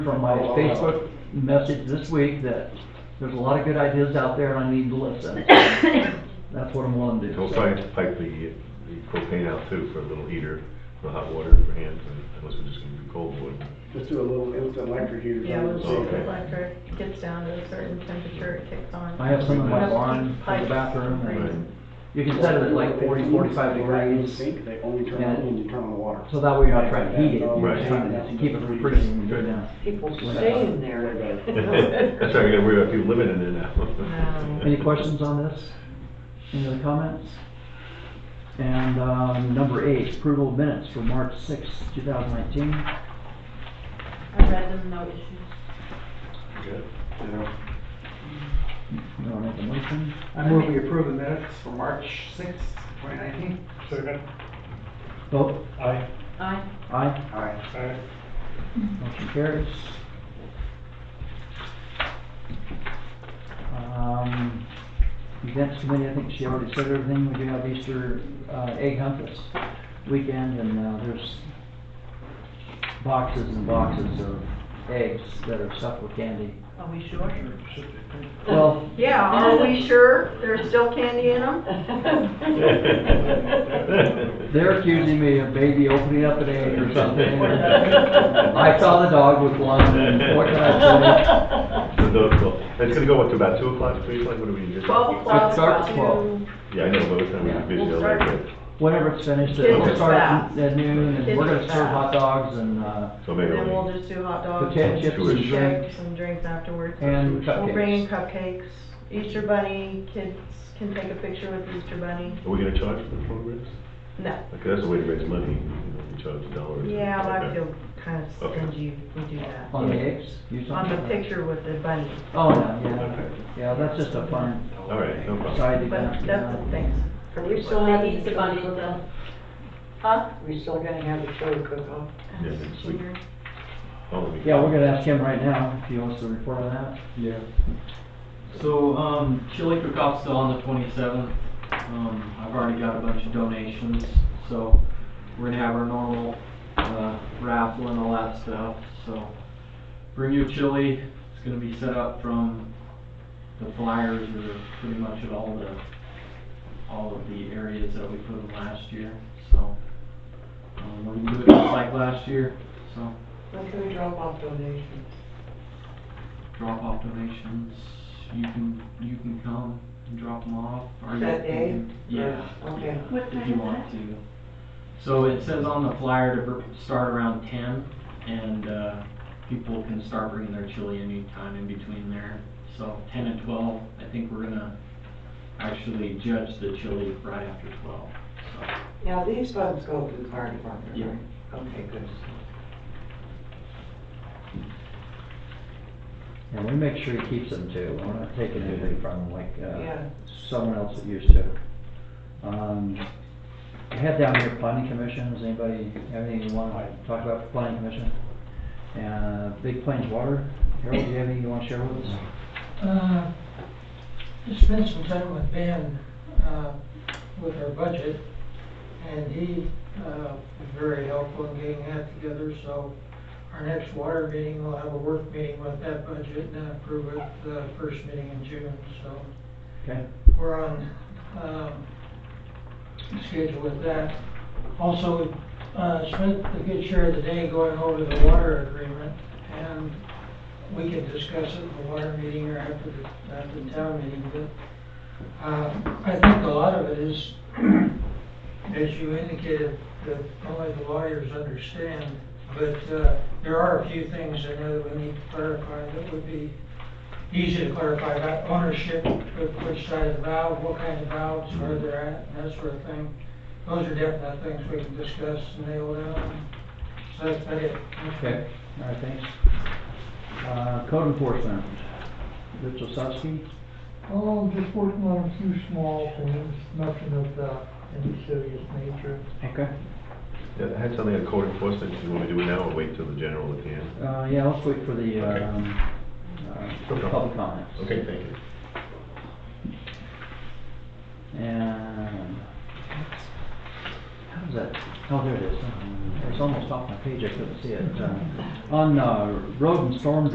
from my Facebook message this week that there's a lot of good ideas out there and I need to listen. That's what I'm willing to do. He'll try to pipe the, the propane out too for a little heater, for hot water for hands, and unless we're just gonna do cold wood. Just do a little instant electric heater. Yeah, once the Okay. electric gets down to a certain temperature, it kicks on. I have some in my lawn, in the bathroom, and you can set it at like 40, 45 degrees. Sink, they only turn on when you turn on the water. So that way you're not trying to heat it, you're Right. just trying to keep it from freezing when you go down. People staying there. That's why we gotta worry about people living in there now. Um, Any questions on this? Any other comments? And, um, number eight, approval of minutes for March sixth, two thousand nineteen. I read them, no issues. Good. You wanna make a motion? I move we approve the minutes for March sixth, twenty nineteen. Second, Vote? aye, Aye. Oh, Aye? Aye. aye. Motion carries. Um, Events committee, I think she already said everything. We do have Easter uh, egg hunt this weekend, and uh, there's boxes and boxes of eggs that are stuffed with candy. Are we sure? Well, Yeah, are we sure there's still candy in them? they're accusing me of maybe opening up an egg or something. I saw the dog with one, and what can I say? So those- well, It's gonna go up to about two o'clock, three o'clock, what do we do? Twelve o'clock starts to, twelve. Yeah, I know, but it's time we Yeah, have we'll video start later. Whenever it's finished, Kids it'll are start fast. at noon, and we're gonna Kids are serve fast. hot dogs and, uh, So and maybe then we'll only, just do hot dogs. Potato chips and shakes drinks. And drinks afterwards. And We'll bring in cupcakes. cupcakes, Easter bunny, kids can take a picture with Easter bunny. are we gonna charge for the programs? No, Because that's a way to raise money, you know, we charge a dollar. or something. yeah, but I Okay. feel kind of Okay. stingy if we do that. On the eggs? You saw On the that? picture with the bunny, Oh, no, yeah, Okay. yeah, that's just a fun All right, no problem. side event. but that's the yeah. thing. Are we still having Easter Easter bunny, bunny though. Huh? We still gonna have a show cook-off? Yeah, next week. Oh, we- Yeah, we're gonna ask him right now if he wants to report on that. Yeah. So, um, chili cook-off's still on the twenty-seventh. Um, I've already got a bunch of donations, so we're gonna have our normal, uh, raffle and all that stuff, so. Bring your chili, it's gonna be set up from the flyers or pretty much at all the, all of the areas that we put in last year, so. Um, we're gonna do it just like last year, so When can we drop off donations? drop off donations, you can, you can come and drop them off. or you That day? can- Yeah. Okay. yeah, What If time you is want to. So it says on the flyer to br- start around ten, and, uh, people can start bringing their chili anytime in between there. So ten and twelve, I think we're gonna actually judge the chili right after twelve, so. Now, these funds go to the fire department, Yeah. right? Okay, good. And we make sure he keeps them too. We're not taking anything from him like, uh, Yeah. someone else that used to. Um, I had down here planning commission. Does anybody have anything you wanna talk about for planning commission? Uh, Big Plains Water. Harold, do you have anything you wanna share with us? Uh, Just spent some time with Ben, uh, with our budget, and he, uh, was very helpful in getting that together, so our next water meeting, we'll have a work meeting with that budget and then approve it the first meeting in June, so Okay, we're on, um, schedule with that. Also, uh, spent a good share of the day going over the water agreement, and we can discuss it in the water meeting or after the, after the town meeting, but, uh, I think a lot of it is, as you indicated, that only the lawyers understand, but, uh, there are a few things I know that we need to clarify that would be easy to clarify about ownership, which- which side of the valve, what kind of valves, where they're at, and that sort of thing. Those are definite things we can discuss and nail down. So that's about it. okay, all right, thanks. Uh, code enforcement, Rich Osowski, Oh, just working on a few small things, nothing of, uh, any serious nature. okay. Yeah, I had something on code enforcement, do you wanna do it now or wait till the general at the end? Uh, yeah, let's wait for the, Okay. um, uh, for the public comments. Okay, thank you. And, how does Is that, oh, there it is. Um, It's almost off my page, I couldn't see it. Um, On uh, Road and Storm